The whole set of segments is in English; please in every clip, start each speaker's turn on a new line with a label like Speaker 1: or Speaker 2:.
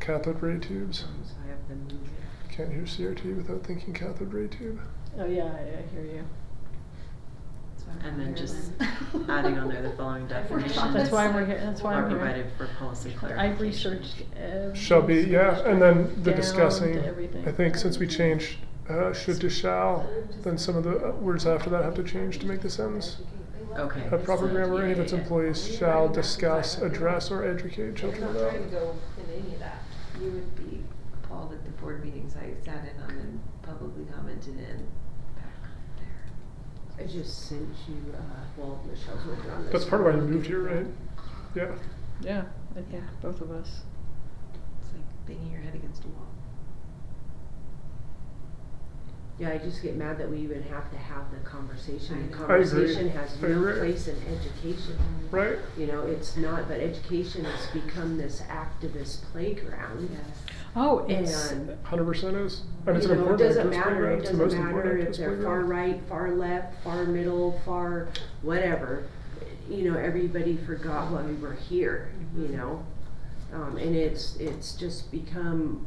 Speaker 1: cathode ray tubes.
Speaker 2: I have been moving.
Speaker 1: Can't hear CRT without thinking cathode ray tube.
Speaker 3: Oh, yeah, I, I hear you.
Speaker 2: And then just adding on there the following definition.
Speaker 3: That's why we're here, that's why
Speaker 2: Are
Speaker 3: I'm here.
Speaker 2: provided for policy
Speaker 3: I
Speaker 2: clarification.
Speaker 3: researched every.
Speaker 1: Shall be, yeah, and then the
Speaker 3: down to
Speaker 1: discussing,
Speaker 3: everything.
Speaker 1: I think since we changed, uh, should to shall, then some of the uh, words after that have to change to make the sentence.
Speaker 2: Okay.
Speaker 1: Have proper
Speaker 2: so-
Speaker 1: grammar, any of its employees shall discuss, address, or educate children
Speaker 4: I'm not trying to
Speaker 1: about.
Speaker 4: go in any of that.
Speaker 5: You would be appalled at the board meetings I sat in on and publicly commented in back there.
Speaker 6: I just sent you, uh, well, Michelle's working on this.
Speaker 1: That's part of why you moved here, right? Yeah,
Speaker 3: Yeah, I think
Speaker 5: Yeah.
Speaker 3: both of us.
Speaker 5: It's like banging your head against a wall.
Speaker 6: Yeah, I just get mad that we even have to have the
Speaker 5: I
Speaker 6: conversation. The
Speaker 5: know.
Speaker 1: I agree.
Speaker 6: conversation has
Speaker 1: I
Speaker 6: no
Speaker 1: agree.
Speaker 6: place in education.
Speaker 2: Mm-hmm.
Speaker 1: right?
Speaker 6: You know, it's not, but education has become this activist playground.
Speaker 3: Oh, it's,
Speaker 6: And
Speaker 1: Hundred percent is, and it's
Speaker 6: You
Speaker 1: an
Speaker 6: know,
Speaker 1: important
Speaker 6: It doesn't
Speaker 1: activist
Speaker 6: matter,
Speaker 1: program,
Speaker 6: it
Speaker 1: it's the most
Speaker 6: doesn't matter
Speaker 1: important
Speaker 6: if
Speaker 1: activist
Speaker 6: they're far
Speaker 1: program.
Speaker 6: right, far left, far middle, far whatever. You know, everybody forgot why we were here, you
Speaker 1: Mm-hmm.
Speaker 6: know? Um, and it's, it's just become,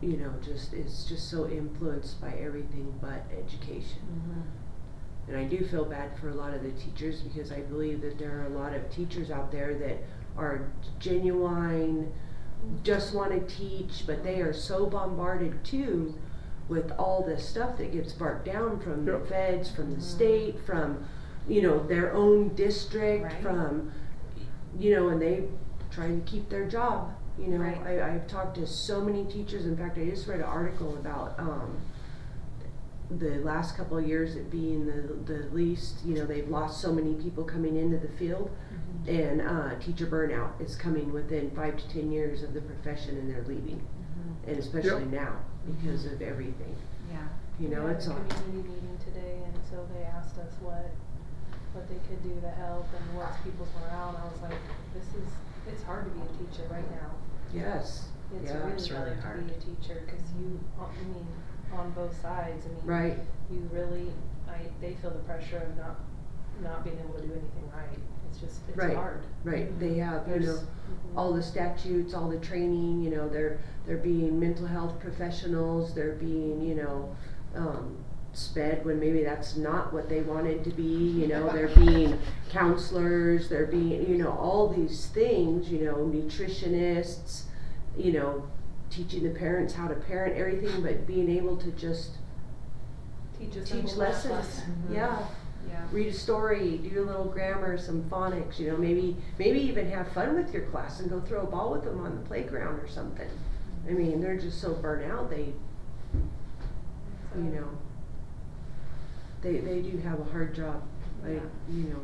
Speaker 6: you know, just, it's just so influenced by everything but education.
Speaker 5: Mm-hmm.
Speaker 6: And I do feel bad for a lot of the teachers because I believe that there are a lot of teachers out there that are genuine, just want to teach, but they are so bombarded too with all this stuff that gets barked down from the
Speaker 1: Yep.
Speaker 6: feds, from the state, from, you know, their own district,
Speaker 5: Right.
Speaker 6: from, you know, and they try to keep their job, you know.
Speaker 5: Right.
Speaker 6: I, I've talked to so many teachers, in fact, I just read an article about, um, the last couple of years it being the, the least, you know, they've lost so many people coming into the field.
Speaker 4: Mm-hmm.
Speaker 6: And, uh, teacher burnout is coming within five to ten years of the profession and they're leaving.
Speaker 5: Mm-hmm.
Speaker 6: And especially now, because
Speaker 4: Mm-hmm.
Speaker 6: of everything,
Speaker 5: Yeah.
Speaker 6: you know, it's all,
Speaker 4: We had a community meeting today, and so they asked us what, what they could do to help and what's people's morale, and I was like, this is, it's hard to be a teacher right now.
Speaker 6: yes,
Speaker 4: It's
Speaker 6: Yeah.
Speaker 4: really
Speaker 2: It's really
Speaker 4: hard to
Speaker 2: hard.
Speaker 4: be a teacher, cause you, I mean, on both sides, I mean.
Speaker 6: right,
Speaker 4: You really, I, they feel the pressure of not, not being able to do anything right, it's just, it's
Speaker 6: Right.
Speaker 4: hard.
Speaker 6: right, they have, you
Speaker 4: There's-
Speaker 6: know,
Speaker 4: mhm.
Speaker 6: all the statutes, all the training, you know, they're, they're being mental health professionals, they're being, you know, um, sped when maybe that's not what they wanted to be, you know, they're being counselors, they're being, you know, all these things, you know, nutritionists, you know, teaching the parents how to parent everything, but being able to just
Speaker 4: Teach us.
Speaker 6: teach lessons, yeah
Speaker 5: Yeah.
Speaker 6: read a story, do a little grammar, some phonics, you know, maybe maybe even have fun with your class and go throw a ball with them on the playground or something. I mean, they're just so burnt out they you know they they do have a hard job. Like, you know.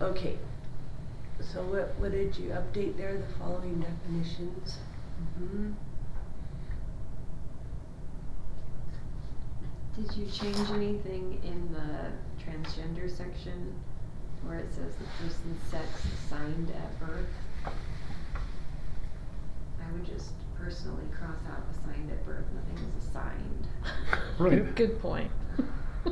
Speaker 6: Okay. So what what did you update there? The following definitions.
Speaker 5: Mm-hmm. Did you change anything in the transgender section where it says the person's sex assigned at birth? I would just personally cross out assigned at birth, nothing is assigned.
Speaker 1: Right.
Speaker 3: good point.
Speaker 5: And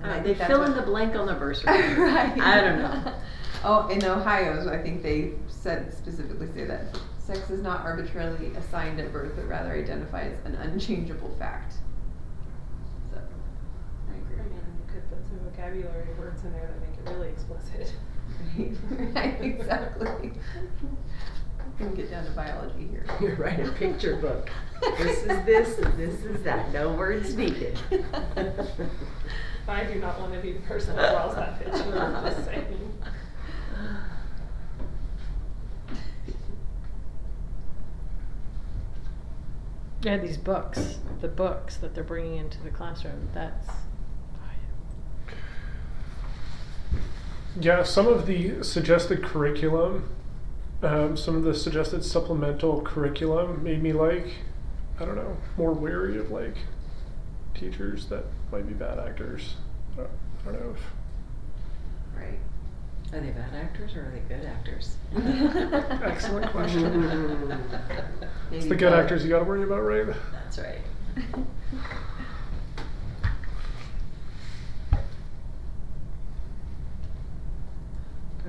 Speaker 5: I
Speaker 2: Uh,
Speaker 5: think
Speaker 2: They
Speaker 5: that's
Speaker 2: fill
Speaker 5: what-
Speaker 2: in the blank on the birth certificate.
Speaker 5: right.
Speaker 2: I don't know.
Speaker 5: Oh, in Ohio's, I think they said specifically say that sex is not arbitrarily assigned at birth, but rather identifies an unchangeable fact. So, I
Speaker 4: I mean,
Speaker 5: agree.
Speaker 4: you could put some vocabulary words in there that make it really explicit.
Speaker 5: Right, right, exactly. We can get down to biology here.
Speaker 6: You write a picture book. This is this and this is that. No words needed.
Speaker 4: I do not want to be the person that draws that picture, I'm just saying.
Speaker 3: Yeah, these books, the books that they're bringing into the classroom, that's,
Speaker 1: Yeah, some of the suggested curriculum, um, some of the suggested supplemental curriculum made me like, I don't know, more wary of like teachers that might be bad actors. I don't, I don't know if
Speaker 5: Right.
Speaker 2: Are they bad actors or are they good actors?
Speaker 1: Excellent question.
Speaker 5: Maybe
Speaker 1: it's the good
Speaker 5: both.
Speaker 1: actors you got to worry about, right?
Speaker 2: That's right.